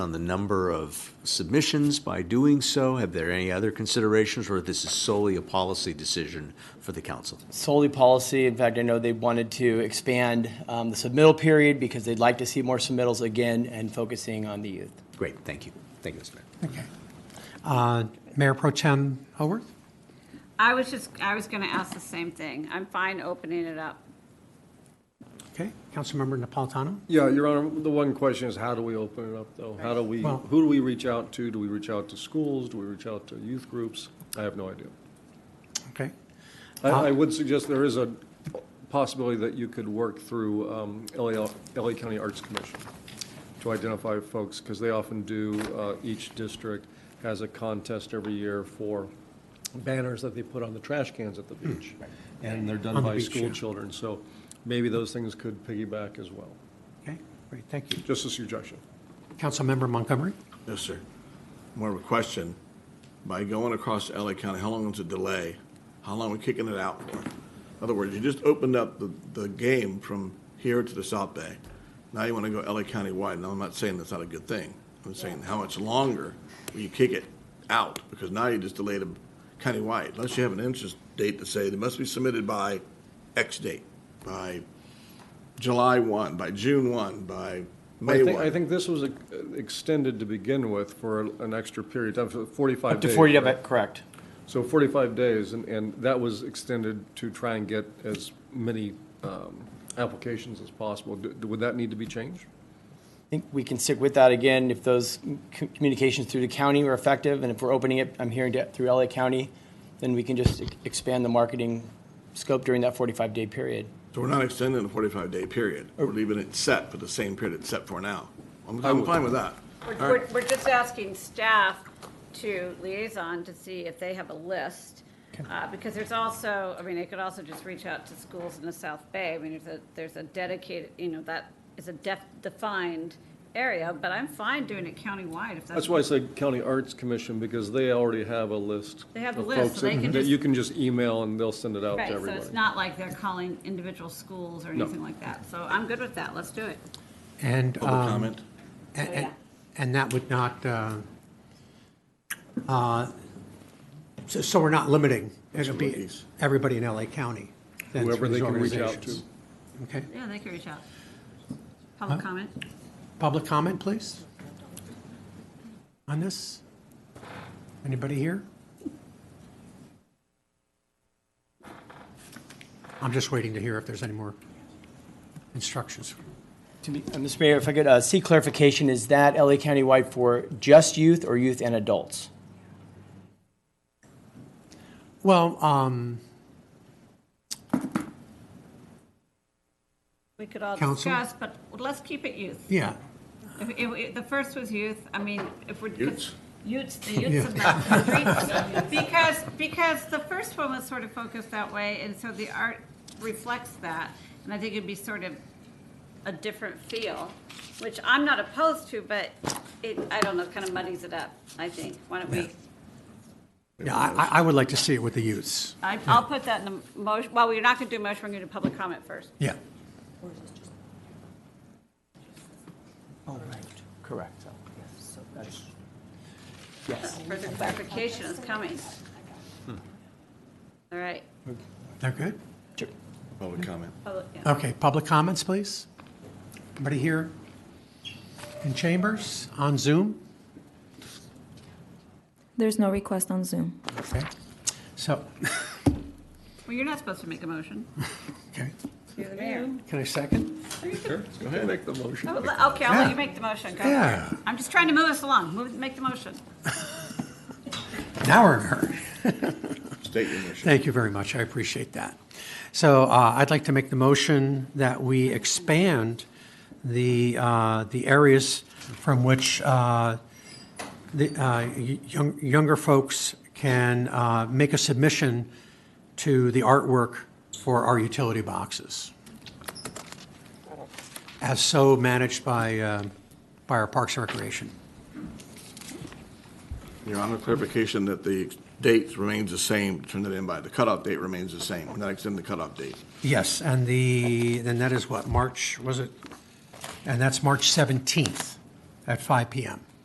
on the number of submissions by doing so? Have there any other considerations, or this is solely a policy decision for the council? solely policy. In fact, I know they wanted to expand um, the submittal period because they'd like to see more submittals again and focusing on the youth. Great, thank you. Thank you, Mr. Mayor. Okay. Uh, Mayor Pro Tem Haworth? I was just, I was going to ask the same thing. I'm fine opening it up. Okay. Councilmember Napolitano? Yeah, Your Honor, the one question is how do we open it up, though? How do we, Well- who do we reach out to? Do we reach out to schools? Do we reach out to youth groups? I have no idea. Okay. I, I would suggest there is a possibility that you could work through um, LA, LA County Arts Commission to identify folks, because they often do, uh, each district has a contest every year for banners that they put on the trash cans at the beach. And they're Hmm. On done the by beach, yeah. school children, so maybe those things could piggyback as well. Okay, great, thank you. Just a suggestion. Councilmember Montgomery? Yes, sir. More of a question. By going across to LA County, how long is the delay? How long are we kicking it out for? In other words, you just opened up the, the game from here to the South Bay. Now you want to go LA County wide. Now, I'm not saying that's not a good thing. I'm saying how much longer will you kick it out? Because now you just delayed them countywide, unless you have an interest date to say they must be submitted by X date, by July 1, by June 1, by I May think, 1. I think this was uh, extended to begin with for an extra period, of time, for 45 Up to days. 40 of right? it, correct. So 45 days, and, and that was extended to try and get as many um, applications as possible. D- Would that need to be changed? I think we can stick with that again if those c- communications through the county were effective. And if we're opening it, I'm hearing to- through LA County, then we can just e- expand the marketing scope during that 45-day period. So we're not extending the forty-five day period. We're leaving it set for the same period it's set for now. I'm, I'm fine with that. We're, All we're- right. we're just asking staff to liaison to see if they have a list. Uh, Because there's also, I mean, they could also just reach out to schools in the South Bay. I mean, there's a, there's a dedicated, you know, that is a def, defined area, but I'm fine doing it countywide if that's. That's why I said County Arts Commission, because they already have a list. They have a of list, folks so they that- can That just- you can just email and they'll send it out to Right, so everybody. it's not like they're calling individual schools or No. anything like that. So I'm good with that. Let's do it. And, Public um, comment? and- Oh, and- yeah. and that would not, uh, uh, so so we're not limiting, it'll be Absolutely. everybody in LA County. then Whoever through they these can reach out organizations. Okay, Yeah, they can reach out. Public comment? public comment, please? On this? Anybody here? I'm just waiting to hear if there's any more instructions. To be- uh, Mr. Mayor, if I could uh, seek clarification, is that LA County-wide for just youth or youth and adults? Well, um, We could all Council? discuss, but let's keep it youth. yeah, If- if- if The first was youth, I mean, if we're. Utes? Utes, the youths of Mountain Creek. Because, because the first one was sort of focused that way, and so the art reflects that. And I think it'd be sort of a different feel, which I'm not opposed to, but it, I don't know, kind of muddies it up, I think. Why don't we, yeah, I, I- I would like to see it with the youths. I- I'll put that in the motion, well, we're not going to do a motion, we're going to do public comment first. Yeah. Correct. Further clarification is coming. All right. They're good? Public comment. Public- yeah. Okay, public comments, please? Anybody here in chambers, on Zoom? There's no request on Zoom. Okay, so, Well, you're not supposed to make a motion. okay, You're the mayor. can I second? Sure, go ahead, make the motion. Oh, le- Okay, I'll Yeah. let you make the motion. Go for Yeah. it. I'm just trying to move us along. Move, make the motion. Now we're in a hurry. State your motion. Thank you very much, I appreciate that. So uh, I'd like to make the motion that we expand the, uh, the areas from which uh, the uh, y- young- younger folks can uh, make a submission to the artwork for our utility boxes, as so managed by, uh, by our Parks and Recreation. Your Honor, clarification that the date remains the same, turn it in by, the cutoff date remains the same. We're not extending the cutoff date. Yes, and the, then that is what, March, was it? And that's March 17th at 5 PM.